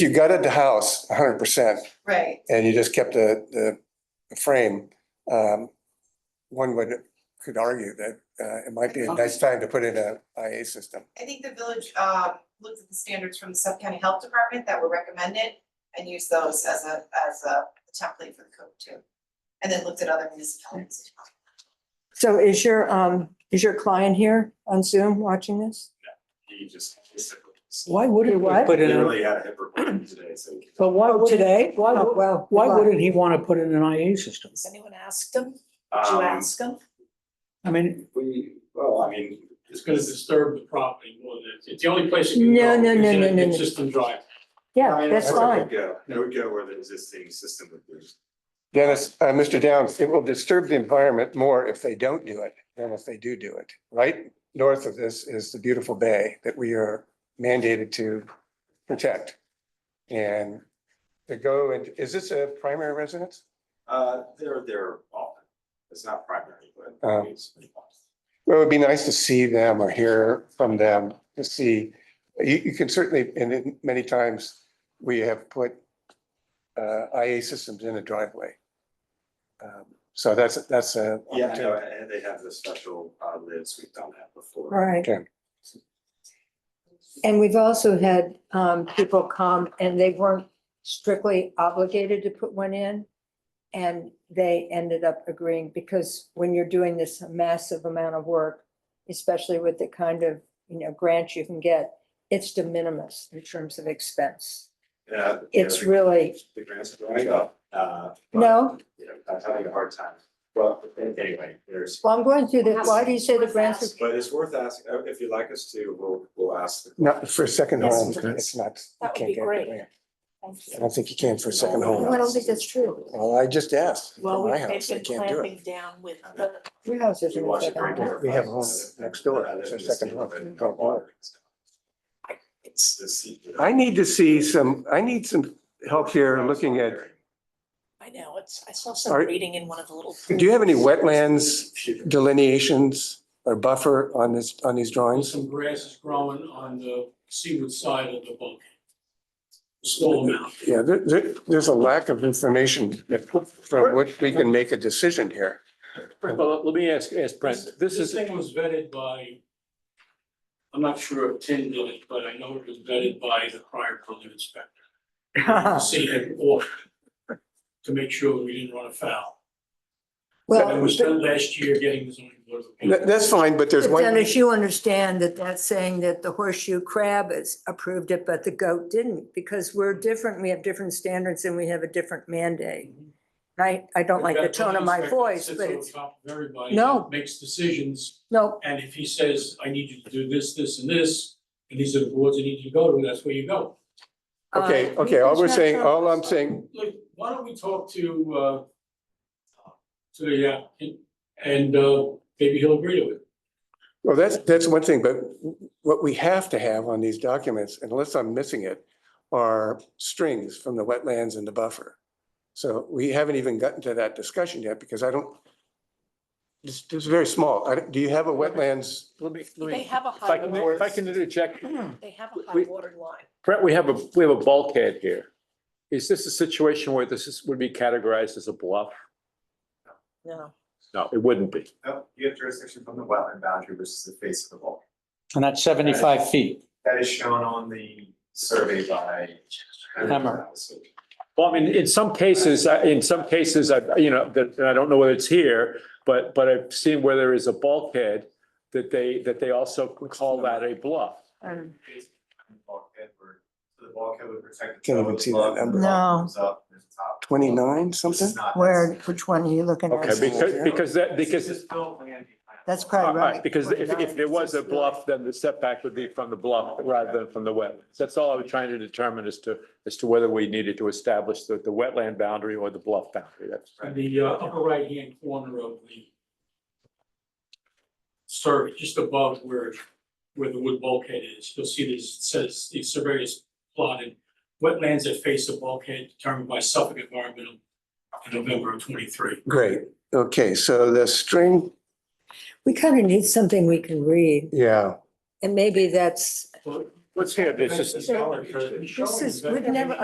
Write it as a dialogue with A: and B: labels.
A: you gutted the house hundred percent
B: Right,
A: and you just kept the, the frame, um, one would, could argue that, uh, it might be a nice time to put in a IA system.
B: I think the village uh looked at the standards from the Suffolk County Health Department that were recommended and used those as a as a template for the code too. And then looked at other municipalities.
C: So is your, um, is your client here on Zoom watching this?
D: He just.
E: Why wouldn't
C: Do
E: we
C: what?
E: put in, a-
D: Literally had a hip replacement today, so.
E: but why
C: Oh,
E: wouldn't,
C: today?
E: why
C: Oh,
E: would-
C: well.
E: why
C: good luck.
E: wouldn't he want to put in an IA system?
F: Has anyone asked him? Did you
D: Um,
F: ask him?
E: I mean,
D: we, well, I mean,
G: It's gonna disturb the property more than, it's- it's the only place you can
C: No, no,
G: go
C: no,
G: is in
C: no,
G: a
C: no, no.
G: consistent drive.
C: Yeah, that's fine.
D: Yeah, it would go where the existing system would be.
A: Dennis, uh, Mr. Downs, it will disturb the environment more if they don't do it than if they do do it, right? North of this is the beautiful bay that we are mandated to protect. And to go and, is this a primary residence?
D: Uh, they're, they're often, it's not primary, but
A: Oh.
D: it's pretty often.
A: Well, it'd be nice to see them or hear from them to see, you, you can certainly, and it- many times we have put uh, IA systems in a driveway. Um, So that's, that's a.
D: Yeah, I know,
A: opportunity.
D: and they have the special uh lids, we've done that before.
C: Right.
A: Okay.
C: And we've also had, um, people come and they weren't strictly obligated to put one in. And they ended up agreeing because when you're doing this massive amount of work, especially with the kind of, you know, grant you can get, it's de minimis in terms of expense.
D: Yeah. Uh, you know,
C: It's
D: the-
C: really,
D: The grants are going up, uh. but,
C: No.
D: You know, I'm having a hard time, well, anyway, there's.
C: well, I'm going through the, why do you say the grants? are-
D: But it's worth asking, uh, if you'd like us to, we'll, we'll ask. the-
A: Not for a second
F: Yes,
A: home,
F: that's-
A: it's not. you
F: that would
A: can't
F: be
A: get the
F: great.
A: grant.
F: Thank
A: I
F: you.
A: don't think you can for a second
C: No, I
A: home.
C: don't think that's true.
A: Well, I just asked
F: Well,
A: for my
F: we've they've
A: house, I
F: been
A: can't do it.
F: clamping down with the
C: Your house isn't a
D: We watch it
C: second
D: very
C: home.
D: carefully.
A: We have a home next door,
D: Uh,
A: it's a
D: the
A: second
D: state
A: home.
D: of it, uh, water. It's the seat.
A: I need to see some, I need some help here looking at,
F: I know, it's, I saw some
A: Are-
F: reading in one of the little.
A: do you have any wetlands
D: Phew.
A: delineations or buffer on this, on these drawings?
G: Some grass is growing on the seaward side of the bulkhead. Small amount.
A: Yeah, there, there, there's a lack of information that- from which we can make a decision here.
H: Well, let me ask, ask Brent, this is,
G: thing was vetted by, I'm not sure if Tim did it, but I know it was vetted by the prior building inspector.
C: Uh-huh.
G: to See it off to make sure we didn't run afoul. And
C: Well,
G: we spent last year getting the zoning board. of appeals.
A: That- that's fine, but there's
C: but
A: one.
C: Dennis, you understand that that's saying that the horseshoe crab is approved it, but the goat didn't, because we're different, we have different standards and we have a different mandate. I, I don't like the
G: That
C: tone of
G: building
C: my
G: inspector
C: voice,
G: sits
C: but
G: on
C: it's,
G: top of Everybody.
C: No.
G: that Makes decisions
C: no,
G: And if he says, I need you to do this, this, and this, and these are the boards I need you to go to, that's where you go.
A: Okay,
C: uh,
A: okay, all we're
C: that's not
A: saying,
C: true.
A: all I'm saying,
G: Look, why don't we talk to, uh, to the applicant, and, uh, maybe he'll agree to it.
A: well, that's, that's one thing, but what we have to have on these documents, unless I'm missing it, are strings from the wetlands and the buffer. So we haven't even gotten to that discussion yet because I don't, it's, it's very small. I, don't- do you have a wetlands?
H: let me, let
F: They
H: me,
F: have a
H: if I
F: high
H: can,
F: water,
H: if I can interject,
F: they have a high
H: we-
F: water line.
H: Brent, we have a, we have a bulkhead here. Is this a situation where this is, would be categorized as a bluff?
F: No,
H: No, it wouldn't be.
D: No, oh, you have jurisdiction from the wetland boundary, which is the face of the bulk.
E: and that's seventy-five feet.
D: That is shown on the survey by.
E: Hammer.
H: Well, I mean, in some cases, I- in some cases, I, you know, that, and I don't know whether it's here, but, but I've seen where there is a bulkhead that they, that they also call that a bluff.
C: Um,
D: Bulkhead where- so the bulkhead would protect. the
A: Can't
D: top
A: even
D: of the
A: see that
D: bulk,
A: number.
D: the top
C: No.
D: comes up, there's a top.
A: Twenty-nine
D: This
A: something?
D: is not-
C: Where, which one are you looking
H: Okay,
C: at?
H: because, because that,
D: This is
H: because,
D: just built land behind.
C: That's
H: all
C: probably
H: right,
C: right.
H: because if, if there was a bluff, then the setback would be from the bluff rather than from the wetlands. That's all I was trying to determine as to, as to whether we needed to establish the, the wetland boundary or the bluff boundary. That's,
G: In the uh, upper right-hand corner of the survey, just above where, where the wood bulkhead is, you'll see this, it says, the survey is plotted. Wetlands that face the bulkhead determined by Suffolk Environmental in November of twenty-three.
A: Great, okay, so the string,
C: We kind of need something we can read,
A: yeah,
C: and maybe that's,
G: Well,
I: What's here? This is-
G: This is- we've never-